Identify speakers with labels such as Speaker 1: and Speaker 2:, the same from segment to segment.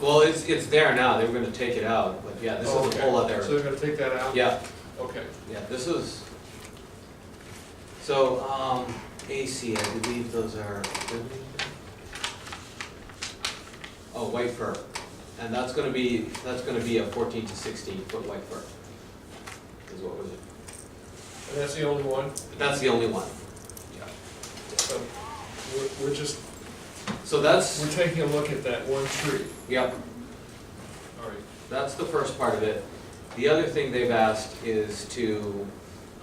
Speaker 1: Well, it's, it's there now, they were gonna take it out, but yeah, this
Speaker 2: Oh,
Speaker 1: is a
Speaker 2: okay.
Speaker 1: whole
Speaker 2: So
Speaker 1: other,
Speaker 2: they're gonna take that out?
Speaker 1: yeah,
Speaker 2: Okay.
Speaker 1: yeah, this is. So, um, AC, I believe those are. Oh, white fir, and that's gonna be, that's gonna be a fourteen to sixteen foot white fir. Is what was it,
Speaker 2: And that's the only one?
Speaker 1: that's the only one,
Speaker 2: So we're, we're just,
Speaker 1: so that's,
Speaker 2: we're taking a look at that one tree.
Speaker 1: yep,
Speaker 2: All right.
Speaker 1: That's the first part of it. The other thing they've asked is to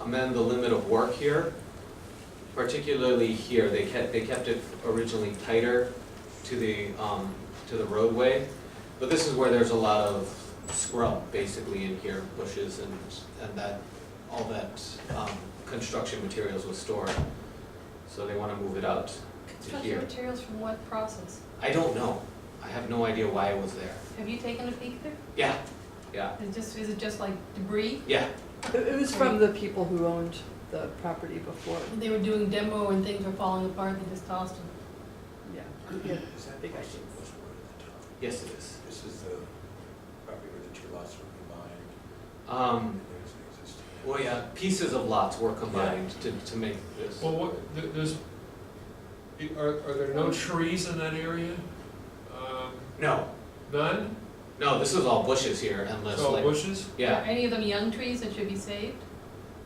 Speaker 1: amend the limit of work here, particularly here. They kept, they kept it originally tighter to the, um, to the roadway. But this is where there's a lot of scrub basically in here, bushes and, and that, all that, um, construction materials was stored. So they wanna move it out to
Speaker 3: Construction
Speaker 1: here.
Speaker 3: materials from what process?
Speaker 1: I don't know. I have no idea why it was there.
Speaker 3: Have you taken a peek there?
Speaker 1: Yeah, yeah,
Speaker 3: Is just, is it just like debris?
Speaker 1: yeah.
Speaker 4: It it was from the people who owned the property before,
Speaker 3: They were doing demo and things were falling apart, they just tossed them.
Speaker 4: yeah.
Speaker 5: Is that
Speaker 4: Big
Speaker 5: the
Speaker 4: issue.
Speaker 5: first word at the top?
Speaker 1: Yes, it is.
Speaker 5: This is the property where the two lots were combined,
Speaker 1: Um,
Speaker 5: and there's an existing.
Speaker 1: well, yeah, pieces of lots were combined to, to make this.
Speaker 2: Well, what, th- there's, i- are, are there no trees in that area? Um,
Speaker 1: No,
Speaker 2: None?
Speaker 1: no, this is all bushes here unless
Speaker 2: So
Speaker 1: like,
Speaker 2: bushes?
Speaker 3: Are
Speaker 1: yeah,
Speaker 3: any of them young trees that should be saved?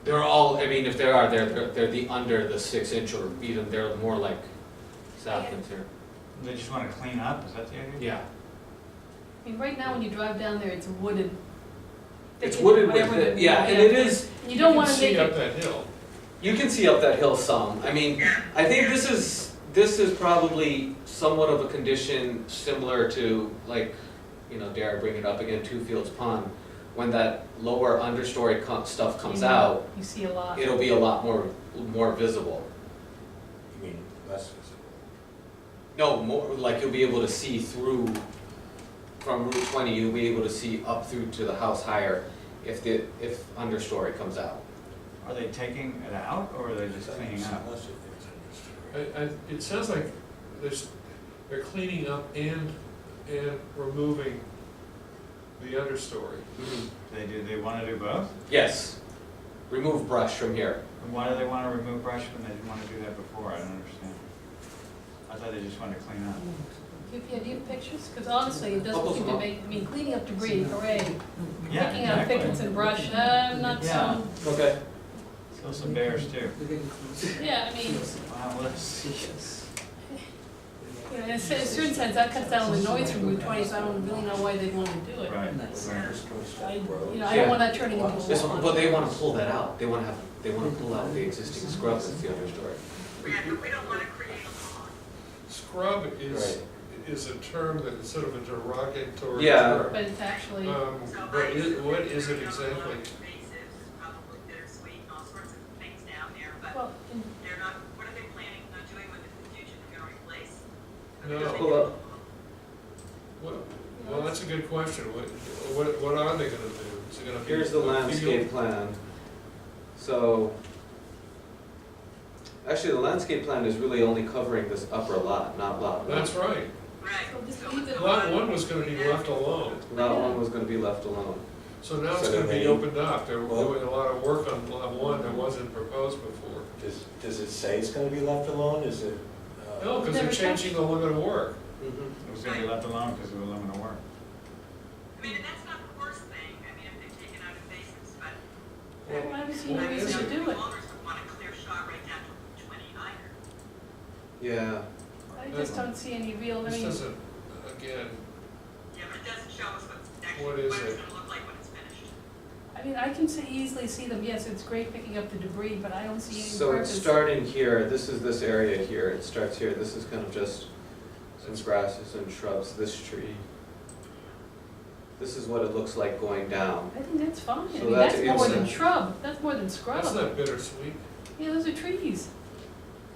Speaker 1: they're all, I mean, if there are, they're, they're, they're the under the six inch or even, they're more like saplings here.
Speaker 6: They just want to clean up, is that the idea?
Speaker 1: Yeah,
Speaker 3: I mean, right now when you drive down there, it's wooded.
Speaker 1: it's wooded with,
Speaker 3: Whatever
Speaker 1: it-
Speaker 3: the-
Speaker 1: yeah, and it is,
Speaker 3: And You don't
Speaker 2: can
Speaker 3: wanna make
Speaker 2: See up
Speaker 3: it,
Speaker 2: that hill.
Speaker 1: you can see up that hill some. I mean, I think this is, this is probably somewhat of a condition similar to like, you know, dare I bring it up again, Two Fields Pond, when that lower understory co- stuff comes
Speaker 3: You know.
Speaker 1: out.
Speaker 3: you see a lot.
Speaker 1: it'll be a lot more, more visible.
Speaker 5: You mean less visible?
Speaker 1: No, more, like you'll be able to see through, from Route twenty, you'll be able to see up through to the house higher if the, if understory comes out.
Speaker 6: Are they taking it out or are they just cleaning up?
Speaker 5: Unless if there's an existing.
Speaker 2: I, I, it sounds like there's, they're cleaning up and, and removing the understory.
Speaker 1: Mm-hmm.
Speaker 6: They do, they want to do both?
Speaker 1: Yes, remove brush from here.
Speaker 6: And why do they want to remove brush when they didn't want to do that before? I don't understand. I thought they just wanted to clean up.
Speaker 3: Do you, yeah, do you have pictures? Cause honestly, it doesn't
Speaker 1: Couples
Speaker 3: seem
Speaker 1: of
Speaker 3: to
Speaker 1: all-
Speaker 3: make, I mean, cleaning up debris, hooray.
Speaker 6: Yeah,
Speaker 3: Picking out
Speaker 6: exactly.
Speaker 3: pickets and brush, uh, not
Speaker 6: Yeah.
Speaker 3: so,
Speaker 1: Okay.
Speaker 6: Kill some bears too.
Speaker 3: yeah, I mean,
Speaker 6: Wow, let's see.
Speaker 3: you know, in a cer- a certain sense, that cuts down on the noise from Route twenty, so I don't really know why they'd wanna do it.
Speaker 6: Right.
Speaker 5: Nice.
Speaker 3: I, you know,
Speaker 1: Yeah.
Speaker 3: I don't want that turning into a
Speaker 1: This one, but
Speaker 3: lawn.
Speaker 1: they wanna pull that out, they wanna have, they wanna pull out the existing scrub that's the understory.
Speaker 2: Scrub is,
Speaker 1: Right.
Speaker 2: is a term that is sort of a derogatory
Speaker 1: Yeah.
Speaker 2: term.
Speaker 3: But it's actually,
Speaker 1: Uh,
Speaker 2: Um, but it, what is it exactly?
Speaker 7: Probably bittersweet and all sorts of things down there, but
Speaker 3: well, in-
Speaker 7: they're not, what are they planning on doing with it in the future? They're gonna replace?
Speaker 2: No,
Speaker 1: Pull up,
Speaker 2: what, well, that's a good question. What, what, what are they gonna do? Is it gonna be?
Speaker 1: here's the
Speaker 2: a field?
Speaker 1: landscape plan. So, actually, the landscape plan is really only covering this upper lot, not lot one.
Speaker 2: That's right.
Speaker 7: Right.
Speaker 3: So this
Speaker 7: So
Speaker 3: leaves it-
Speaker 2: Lot one was gonna be left alone,
Speaker 1: Lot one was gonna be left alone.
Speaker 2: so now it's
Speaker 5: So
Speaker 2: gonna be
Speaker 5: they-
Speaker 2: opened up. They're
Speaker 5: Well-
Speaker 2: doing a lot of work on lot one that wasn't proposed before.
Speaker 5: Does, does it say it's gonna be left alone, is it? uh,
Speaker 2: No, because they're
Speaker 3: Never
Speaker 2: changing the limit of work.
Speaker 1: Mm-hmm.
Speaker 6: It was going to be left alone because it was limited work.
Speaker 7: I mean, and that's not the worst thing, I mean, if they've taken out invasives, but.
Speaker 3: Why would you
Speaker 2: Well,
Speaker 3: need
Speaker 2: it
Speaker 3: a reason to
Speaker 2: isn't.
Speaker 3: do it?
Speaker 7: Owners would want a clear shot right down to twenty either.
Speaker 1: Yeah,
Speaker 3: I just don't see any real, I
Speaker 2: This
Speaker 3: mean,
Speaker 2: doesn't, again,
Speaker 7: Yeah, but it doesn't show us what's actually,
Speaker 2: What
Speaker 7: what
Speaker 2: is
Speaker 7: it's
Speaker 2: it?
Speaker 7: gonna look like when it's finished.
Speaker 3: I mean, I can see, easily see them, yes, it's great picking up the debris, but I don't see any purpose.
Speaker 1: so it's starting here, this is this area here, it starts here, this is kind of just some grasses and shrubs, this tree. This is what it looks like going down.
Speaker 3: I think that's fine,
Speaker 1: So
Speaker 3: I mean,
Speaker 1: that's
Speaker 3: that's more than
Speaker 1: inside.
Speaker 3: shrub, that's more than
Speaker 2: that's
Speaker 3: scrub,
Speaker 2: not bittersweet.
Speaker 3: yeah, those are trees,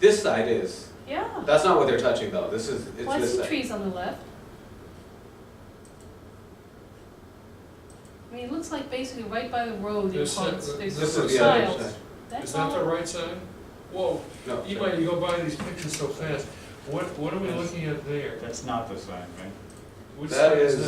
Speaker 1: This side is,
Speaker 3: yeah.
Speaker 1: that's not what they're touching though, this is, it's
Speaker 3: Well, I
Speaker 1: this
Speaker 3: see
Speaker 1: side.
Speaker 3: trees on the left. I mean, it looks like basically right by the road,
Speaker 2: This-
Speaker 3: there's ponds,
Speaker 2: uh,
Speaker 3: there's
Speaker 1: This
Speaker 2: This
Speaker 1: is
Speaker 2: is
Speaker 1: the other
Speaker 3: tiles,
Speaker 1: side.
Speaker 3: that's
Speaker 2: Is that the
Speaker 3: all,
Speaker 2: right side? Whoa,
Speaker 1: No,
Speaker 2: Eva,
Speaker 1: sorry.
Speaker 2: you go by these pictures so fast. What, what are we looking at there?
Speaker 6: That's not the sign, right?
Speaker 2: Which
Speaker 1: That
Speaker 2: side
Speaker 1: is-